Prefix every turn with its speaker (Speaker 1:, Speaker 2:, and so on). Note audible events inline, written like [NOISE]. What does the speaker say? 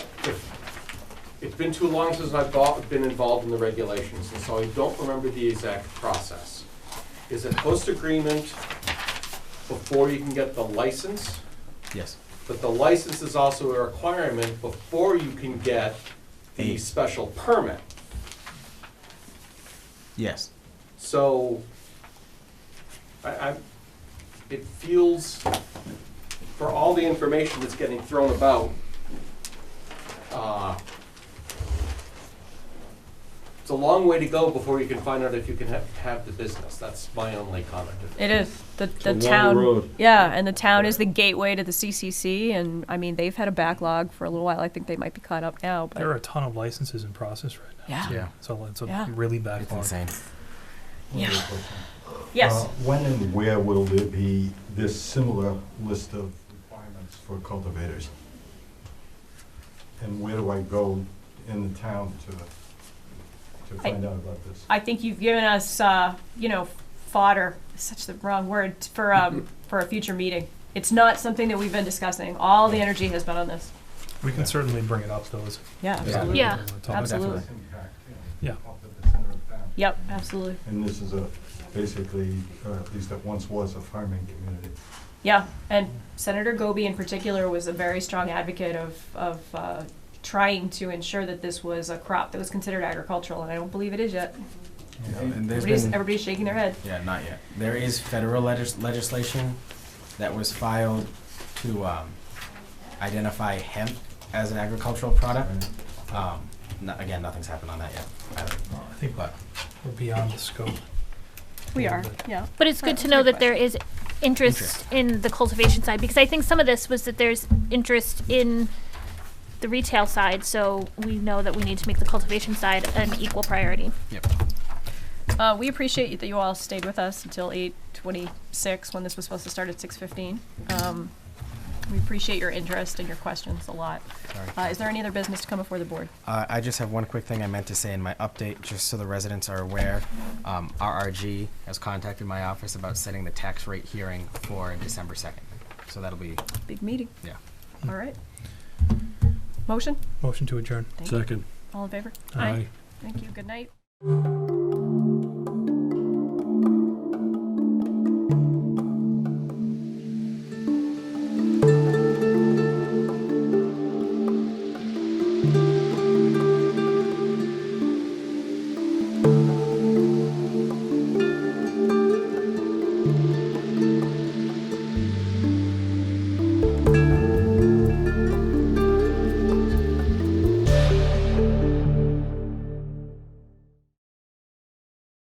Speaker 1: been too long since I've got- been involved in the regulations, and so I don't remember the exact process. Is it post-agreement before you can get the license?
Speaker 2: Yes.
Speaker 1: But the license is also a requirement before you can get the
Speaker 2: A-
Speaker 1: special permit.
Speaker 2: Yes.
Speaker 1: So, I, I, it feels, for all the information that's getting thrown about, uh, it's a long way to go before you can find out if you can have, have the business. That's my only comment.
Speaker 3: It is the the
Speaker 4: long
Speaker 3: town.
Speaker 4: road.
Speaker 3: Yeah, and the town is the gateway to the CCC, and I mean they've had a backlog for a little while. I think they might be caught up now,
Speaker 5: There
Speaker 3: but
Speaker 5: are a ton of licenses in process right now.
Speaker 3: yeah,
Speaker 2: Yeah.
Speaker 5: So it's a
Speaker 3: Yeah.
Speaker 5: really
Speaker 2: It's
Speaker 5: backlog.
Speaker 2: insane.
Speaker 3: yeah, yes.
Speaker 4: Uh, When and where will there be this similar list of requirements for cultivators? And where do I go in the town to, to
Speaker 3: I-
Speaker 4: find out about this?
Speaker 3: I think you've given us, uh, you know, fodder, such the wrong word, for, [LAUGHS] um, for a future meeting. It's not something that we've been discussing. All the energy has been on this.
Speaker 5: We can certainly bring it up though. as-
Speaker 3: Yeah, absolutely.
Speaker 6: Yeah.
Speaker 5: when we're talking.
Speaker 3: Absolutely.
Speaker 4: This impact, you
Speaker 5: Yeah.
Speaker 4: know, up at the center of town.
Speaker 3: Yep, absolutely.
Speaker 4: And this is a, basically, or at least it once was a farming community.
Speaker 3: Yeah, and Senator Goby in particular was a very strong advocate of, of, uh, trying to ensure that this was a crop that was considered agricultural, and I don't believe it is yet.
Speaker 2: Yeah, and there's
Speaker 3: Everybody's,
Speaker 2: been,
Speaker 3: everybody's shaking their head.
Speaker 2: yeah, not yet. There is federal legis- legislation that was filed to um, identify hemp as an agricultural product.
Speaker 4: right?
Speaker 2: Um, no, again, nothing's happened on that yet. Either.
Speaker 5: I think
Speaker 2: But
Speaker 5: we're beyond the scope.
Speaker 3: We are, yeah.
Speaker 6: But it's good to know that there is interest in the cultivation side, because I think some of this was that there's interest in the retail side, so we know that we need to make the cultivation side an equal priority.
Speaker 3: Uh, we appreciate you- that you all stayed with us until eight twenty-six, when this was supposed to start at six fifteen. Um, we appreciate your interest and your questions a lot.
Speaker 2: sorry.
Speaker 3: Uh, is there any other business to come before the board?
Speaker 2: Uh, I just have one quick thing I meant to say in my update, just so the residents are aware. Um, RRG has contacted my office about setting the tax rate hearing for December 2nd. So that'll be,
Speaker 3: Big meeting.
Speaker 2: Yeah.
Speaker 3: All right. Motion?
Speaker 5: Motion to adjourn.
Speaker 3: Thank you.
Speaker 7: Second.
Speaker 3: All in favor?
Speaker 5: Aye.
Speaker 3: Thank you. Good night.